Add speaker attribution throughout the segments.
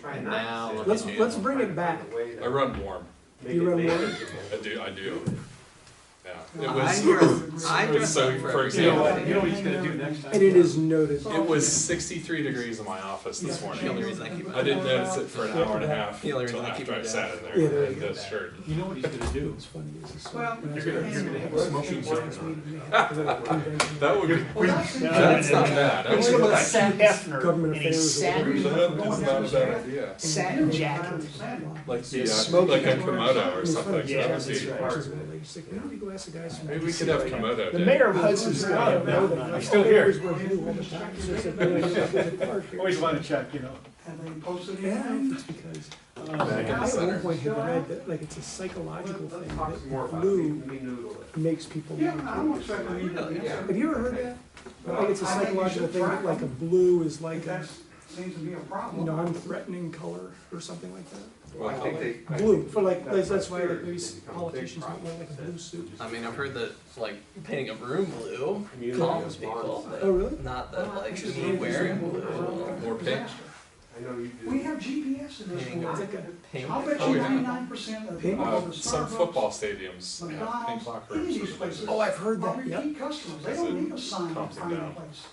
Speaker 1: Try not
Speaker 2: Now,
Speaker 1: to sit.
Speaker 2: look
Speaker 3: Let's-
Speaker 2: at you.
Speaker 3: let's bring it
Speaker 1: Find a
Speaker 3: back.
Speaker 1: way to
Speaker 4: I run warm.
Speaker 1: make
Speaker 3: You
Speaker 1: it
Speaker 3: run warm?
Speaker 1: manageable.
Speaker 4: I do. I do. Yeah. It
Speaker 2: I
Speaker 4: was.
Speaker 2: dress, I
Speaker 4: it was
Speaker 2: dress
Speaker 4: so.
Speaker 2: up
Speaker 4: For
Speaker 1: You know
Speaker 4: example,
Speaker 1: what, you know what he's gonna do next time?
Speaker 3: And it is noted.
Speaker 4: it was 63 degrees in my office this
Speaker 2: The only
Speaker 4: morning.
Speaker 2: reason I keep
Speaker 4: I didn't notice it for an hour and a half
Speaker 2: The only
Speaker 4: until
Speaker 2: reason I keep
Speaker 4: after I
Speaker 2: it
Speaker 4: sat
Speaker 2: down.
Speaker 4: in
Speaker 3: Yeah,
Speaker 4: there
Speaker 3: there
Speaker 4: in
Speaker 3: you
Speaker 4: this shirt.
Speaker 1: You know what he's gonna do?
Speaker 5: Well,
Speaker 1: You're gonna, you're gonna have a smoking gun.
Speaker 4: That would. Be, that's not bad. I
Speaker 6: We're
Speaker 4: would-
Speaker 6: gonna look like Hugh Hefner
Speaker 3: Government
Speaker 6: in a
Speaker 3: affairs.
Speaker 6: satin,
Speaker 4: That's not a bad idea.
Speaker 6: satin jacket.
Speaker 4: Like the, uh,
Speaker 3: Smoking
Speaker 4: like a Komodo or something.
Speaker 6: Yeah,
Speaker 4: that would
Speaker 1: that's
Speaker 4: be,
Speaker 1: right.
Speaker 4: maybe we could have Komodo.
Speaker 6: The
Speaker 4: day.
Speaker 6: mayor of Hudson's got a-
Speaker 5: I'm still here.
Speaker 3: Always
Speaker 5: Always want to check, you know.
Speaker 7: Have they posted
Speaker 3: Yeah, I
Speaker 7: anything?
Speaker 3: think it's because, um, I
Speaker 4: Back in
Speaker 3: at
Speaker 4: the
Speaker 3: one
Speaker 4: center.
Speaker 3: point had read that, like, it's a psychological thing
Speaker 7: Let's talk
Speaker 3: that
Speaker 7: more about it, we
Speaker 3: blue
Speaker 7: we noodle it.
Speaker 3: makes people
Speaker 7: Yeah,
Speaker 3: want
Speaker 7: I
Speaker 3: to
Speaker 7: don't expect them to know the
Speaker 3: Have
Speaker 7: answer.
Speaker 3: you ever heard that? Like, it's a
Speaker 7: I think you
Speaker 3: psychological
Speaker 7: should
Speaker 3: thing,
Speaker 7: try
Speaker 3: that, like, a
Speaker 7: them.
Speaker 3: blue is like
Speaker 7: If
Speaker 3: a
Speaker 7: that seems to be a problem.
Speaker 3: non-threatening color or something like that.
Speaker 1: Well, I think they. I
Speaker 3: Blue,
Speaker 1: think
Speaker 3: for like,
Speaker 7: that's
Speaker 3: that's that's why
Speaker 7: fear
Speaker 3: like, maybe
Speaker 7: that becomes a big
Speaker 3: politicians might wear like a
Speaker 7: problem.
Speaker 3: blue suit.
Speaker 2: I mean, I've heard that like painting a room blue
Speaker 1: community
Speaker 2: calms
Speaker 1: is
Speaker 2: people,
Speaker 1: bonds.
Speaker 3: Oh,
Speaker 2: but
Speaker 3: really?
Speaker 2: not that like people wearing blue will
Speaker 4: More pink.
Speaker 1: I know you do.
Speaker 7: We have GPS in this
Speaker 2: Hang
Speaker 7: world.
Speaker 2: on.
Speaker 3: It's like a-
Speaker 2: paint.
Speaker 7: I'll bet
Speaker 4: Oh,
Speaker 7: you
Speaker 4: yeah.
Speaker 7: ninety-nine percent of the
Speaker 3: Pink?
Speaker 7: people
Speaker 4: Uh,
Speaker 7: at
Speaker 4: some
Speaker 7: Starbucks,
Speaker 4: football stadiums have pink
Speaker 7: McDonald's,
Speaker 4: locker
Speaker 7: any
Speaker 4: rooms.
Speaker 7: of
Speaker 4: for
Speaker 7: these
Speaker 4: those.
Speaker 7: places.
Speaker 3: Oh, I've heard
Speaker 7: are
Speaker 3: that, yeah.
Speaker 7: repeat customers. They
Speaker 4: Because
Speaker 7: don't
Speaker 4: it
Speaker 7: need a sign to
Speaker 4: calms them
Speaker 7: find a
Speaker 4: down.
Speaker 7: place.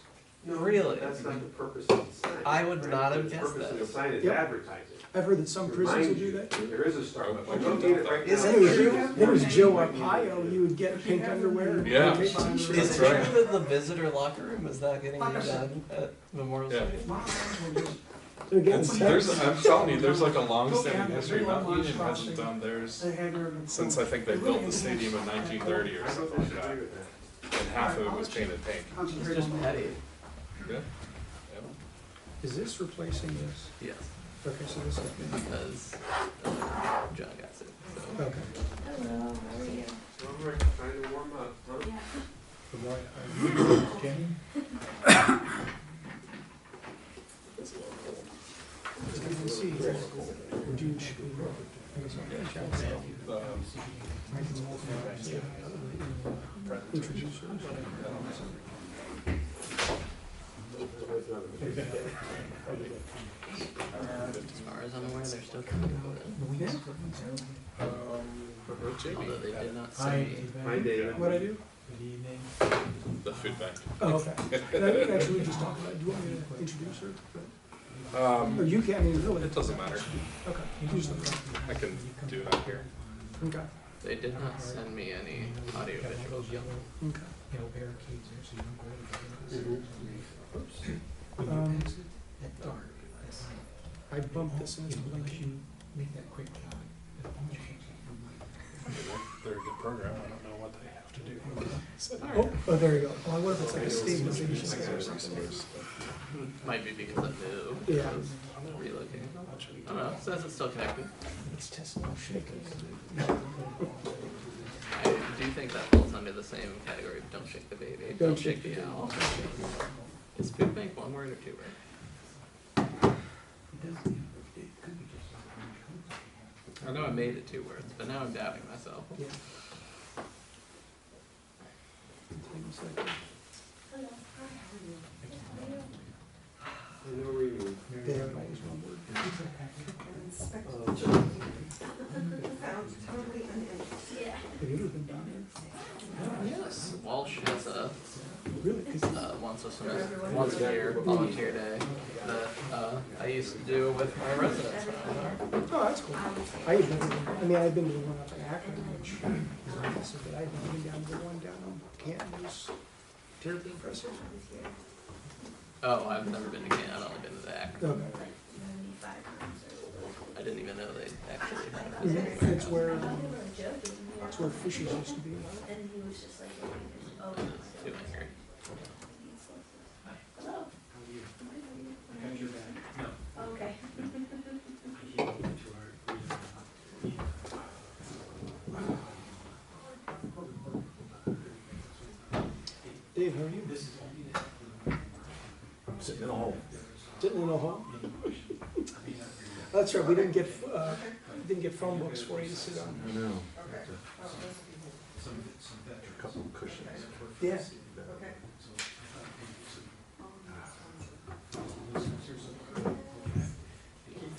Speaker 1: No,
Speaker 2: Really?
Speaker 1: That's not the purpose of the sign.
Speaker 2: I would
Speaker 1: right?
Speaker 2: not have
Speaker 1: The
Speaker 2: guessed
Speaker 1: purpose of the
Speaker 2: this.
Speaker 1: sign is
Speaker 3: Yep.
Speaker 1: advertising.
Speaker 3: I've heard that some prisons will do that too.
Speaker 1: There is a Starbucks.
Speaker 4: Oh,
Speaker 1: You don't need it right now.
Speaker 2: Is
Speaker 3: I
Speaker 2: it
Speaker 3: think
Speaker 2: true?
Speaker 3: It was Joe Arpaio, he would get pink underwear. and
Speaker 4: Yeah.
Speaker 3: pink t-shirts.
Speaker 2: Is it
Speaker 4: That's right.
Speaker 2: true that the visitor locker room is not getting
Speaker 7: Like I
Speaker 2: redone at Memorial
Speaker 4: Yeah.
Speaker 2: Stadium?
Speaker 7: My friends will just,
Speaker 3: So again,
Speaker 4: It's,
Speaker 3: back-
Speaker 4: there's, I'm telling you, there's like a long-standing history. Mountain Union hasn't done theirs
Speaker 7: they had their.
Speaker 4: since I think they built the stadium in 1930
Speaker 1: I
Speaker 4: or
Speaker 1: don't
Speaker 4: something like that,
Speaker 1: disagree with that.
Speaker 4: and half of it was painted pink.
Speaker 2: It's
Speaker 7: Concentrate
Speaker 2: just
Speaker 7: on that.
Speaker 2: petty.
Speaker 4: Yeah.
Speaker 3: Is this replacing this?
Speaker 2: Yes,
Speaker 3: Okay, so this is,
Speaker 2: because uh, John got sick. So.
Speaker 3: okay.
Speaker 1: So I'm like trying to warm up, huh?
Speaker 3: It's good to see. Would you sh- I guess I'll reach out to you.
Speaker 4: Um,
Speaker 3: I can walk around, yeah, introduce her.
Speaker 2: As far as I'm aware, they're still coming out.
Speaker 3: Yeah,
Speaker 4: Um, where's Jamie?
Speaker 2: Although they did not say.
Speaker 1: Hi, David.
Speaker 3: what I do?
Speaker 4: The food bank.
Speaker 3: Oh, okay. And I didn't actually just talk about, do you want me to introduce her? Or
Speaker 4: Um,
Speaker 3: you can, I mean, really?
Speaker 4: it doesn't matter.
Speaker 3: Okay, you just let me know.
Speaker 4: I can do it out here.
Speaker 3: Okay,
Speaker 2: They did not send me any audio visuals.
Speaker 3: okay.
Speaker 5: barricades there so you don't go to the.
Speaker 3: Um,
Speaker 5: At dark, that's like,
Speaker 3: I bumped this into the link.
Speaker 5: unless you make that quick uh, cut. the phone change.
Speaker 4: They're a good program. I don't know what they have to do.
Speaker 3: Oh, oh, there you go. Oh, I wonder if it's like a stabilization or something.
Speaker 2: Might be because I moved.
Speaker 3: Yeah.
Speaker 2: I was relocating. I don't know. It says it's still connected.
Speaker 5: It's Tesla shakers.
Speaker 2: I do think that falls under the same category of don't shake the baby, don't, shake, the owl. Is food bank one word or two words? I know I made it two words, but now I'm doubting myself.
Speaker 3: Yeah.
Speaker 1: I know where you live.
Speaker 3: There, that was one word. Have you ever been down
Speaker 2: Yes. Walsh has a
Speaker 3: there? Really? 'Cause
Speaker 2: uh, once a semester, once a year volunteer day that uh, I used to do with my residents. from Lenore.
Speaker 3: Oh, that's cool. I had never, been- I mean, I've been to the one up in Akron, which is impressive, but I haven't been down to the one down on Canton, it was terribly impressive.
Speaker 2: Oh, I've never been to Canton. I've only been to the Akron.
Speaker 3: Okay.
Speaker 2: I didn't even know they actually had a
Speaker 3: Mhm.
Speaker 2: physical
Speaker 3: It's where,
Speaker 8: We were joking, you know,
Speaker 3: it's where fishes used to be.
Speaker 8: and he was just like, oh,
Speaker 2: campus. It's too angry.
Speaker 8: hello. Okay.
Speaker 3: Dave, how are you?
Speaker 6: Sitting at home.
Speaker 3: Sitting in a hole? That's right, we didn't get, uh, didn't get phone books for you to sit on.
Speaker 6: I know. A couple of cushions.
Speaker 3: Yeah,